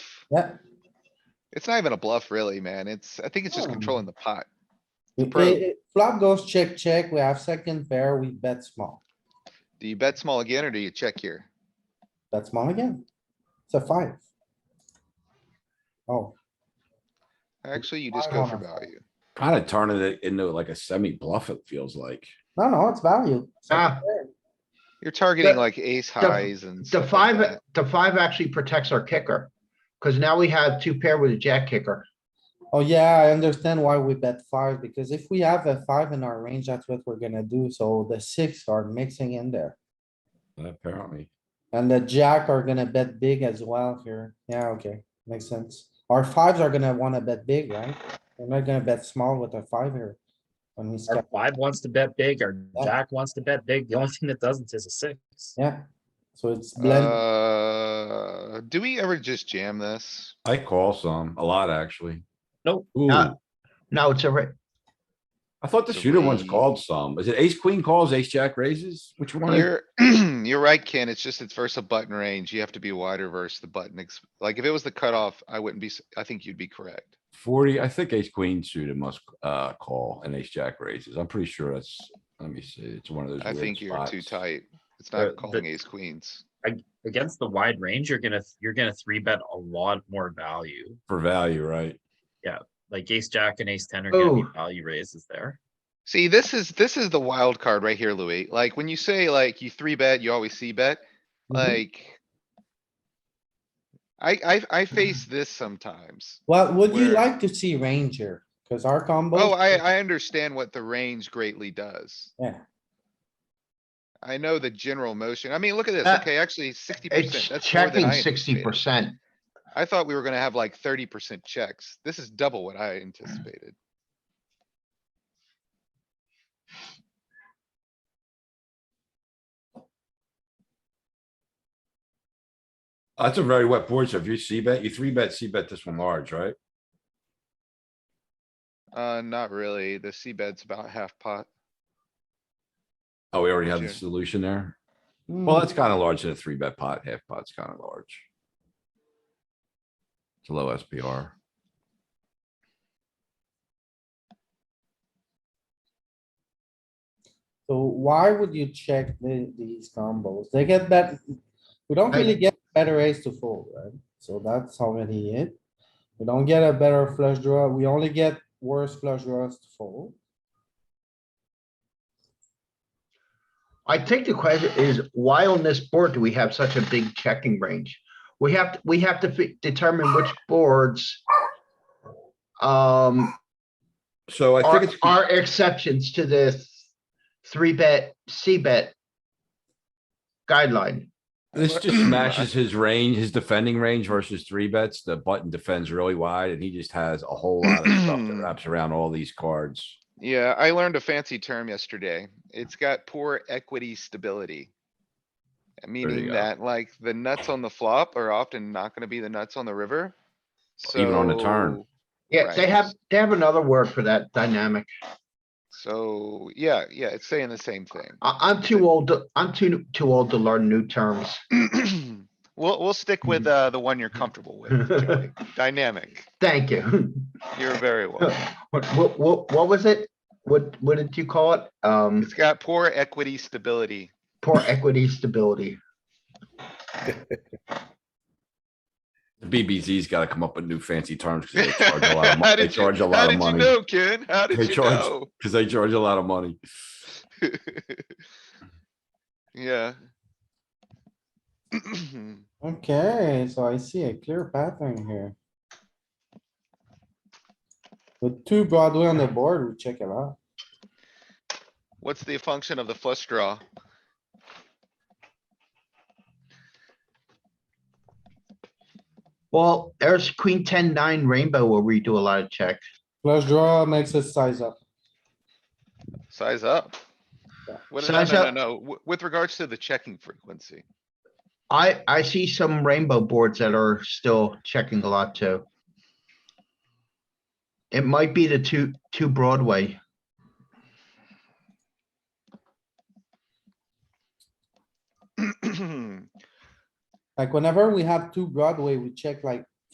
Yeah. It's not even a bluff really, man. It's, I think it's just No. controlling the pot. We play, flop goes check, check, we have second pair, we bet small, Do you bet small again or do you check here? bet small again. It's a five. Oh, Actually, you just I go wanna for fold. value. Kinda turning it into like a semi bluff, it feels like. no, no, it's value. Second Ah. pair. You're targeting like ace highs and. The stuff like five, that. the five actually protects our kicker, because now we have two pair with a jack kicker. Oh, yeah, I understand why we bet five, because if we have a five in our range, that's what we're gonna do, so the six are mixing in there. Apparently, And the jack are gonna bet big as well here. Yeah, okay, makes sense. Our fives are gonna wanna bet big, right? We're not gonna bet small with a five here. When we Our step, five wants to bet big, our Yeah. jack wants to bet big. The only thing that doesn't is a six. yeah. So it's blend, Uh, do we ever just jam this? I call some, a lot actually. Nope. Ooh, I Uh, No, it's a, ra- thought the shooter one's three. called some. Is it ace queen calls, ace jack raises? Which one? is- You're, you're right, Ken. It's just it's versus a button range. You have to be wider versus the button. ex- Like if it was the cutoff, I wouldn't be, s- I think you'd be correct. Forty, I think ace queen suited must uh call and ace jack raises. I'm pretty sure that's, let me see, it's one of those. I weird think you're too spots. tight. It's Uh, not the- calling ace queens. Against the wide range, you're gonna you're gonna three bet a lot more value. For value, right? Like ace jack and ace ten are gonna be Oh. value raises there. See, this is, this is the wild card right here, Louis. Like when you say like you three bet, you always see bet, Mhm. Mm-hmm. like. I, I, I face this sometimes. well, would you Where- like to see range here? Cause our combo. Oh, I, I understand what the range greatly does. Yeah. I know the general motion. I mean, look at this. Uh, Okay, actually sixty it's percent. That's more than checking I sixty anticipated. percent. I thought we were gonna have like thirty percent checks. This is double what I anticipated. That's a very wet board, so if you see bet, you three bet, see bet this one large, right? Uh, not really. The C bed's about half pot. Oh, we already have the Sure. solution there. Well, Hmm, that's kinda large in a three bet pot, half pot's kinda large. It's a low SPR. So why would you check the, these combos? They get bet, we don't I- really get better ace to fold, right? So that's already it. We don't get a better flush draw, we only get worse flush draws to fold. I think the question is, why on this board do we have such a big checking range? We have, to we have to fi- determine which boards um, So I are, think it's. are exceptions to this three bet, C bet guideline. This just smashes his range, his defending range versus three bets. The button defends really wide and he just has a whole lot of stuff that wraps around all these cards. Yeah, I learned a fancy term yesterday. It's got poor equity stability. eh, Meaning go. that like the nuts on the flop are often not gonna be the nuts on the river. Even on the turn. So- Yeah, they Right. have, they have another word for that dynamic. So, yeah, yeah, it's saying the same I, I'm too old, to- I'm too, too old to learn new terms. thing. We'll, we'll stick with, Hmm. uh, the one you're comfortable with, Joey. Dynamic. Thank you. You're very well. What, what, what, what was it? What, what did you call it? Um, It's got poor equity stability. poor equity stability. The BBZ's gotta come up with new fancy terms because they charge a lot How did you how did you of money. They charge a lot of money. know, Ken? How They did you charge- know? Cause they charge a lot of money. Yeah. Okay, so I see a clear pattern here. With two Broadway on the board, we check it out. What's the function of the flush draw? Well, there's queen ten nine rainbow where we do a lot of check. Flush draw makes us size up. Size up. Yeah. What, no, no, Size no, up. no, w- with regards to the checking frequency. I, I see some rainbow boards that are still checking a lot too. It might be the two, two Broadway. Like whenever we have two Broadway, we check like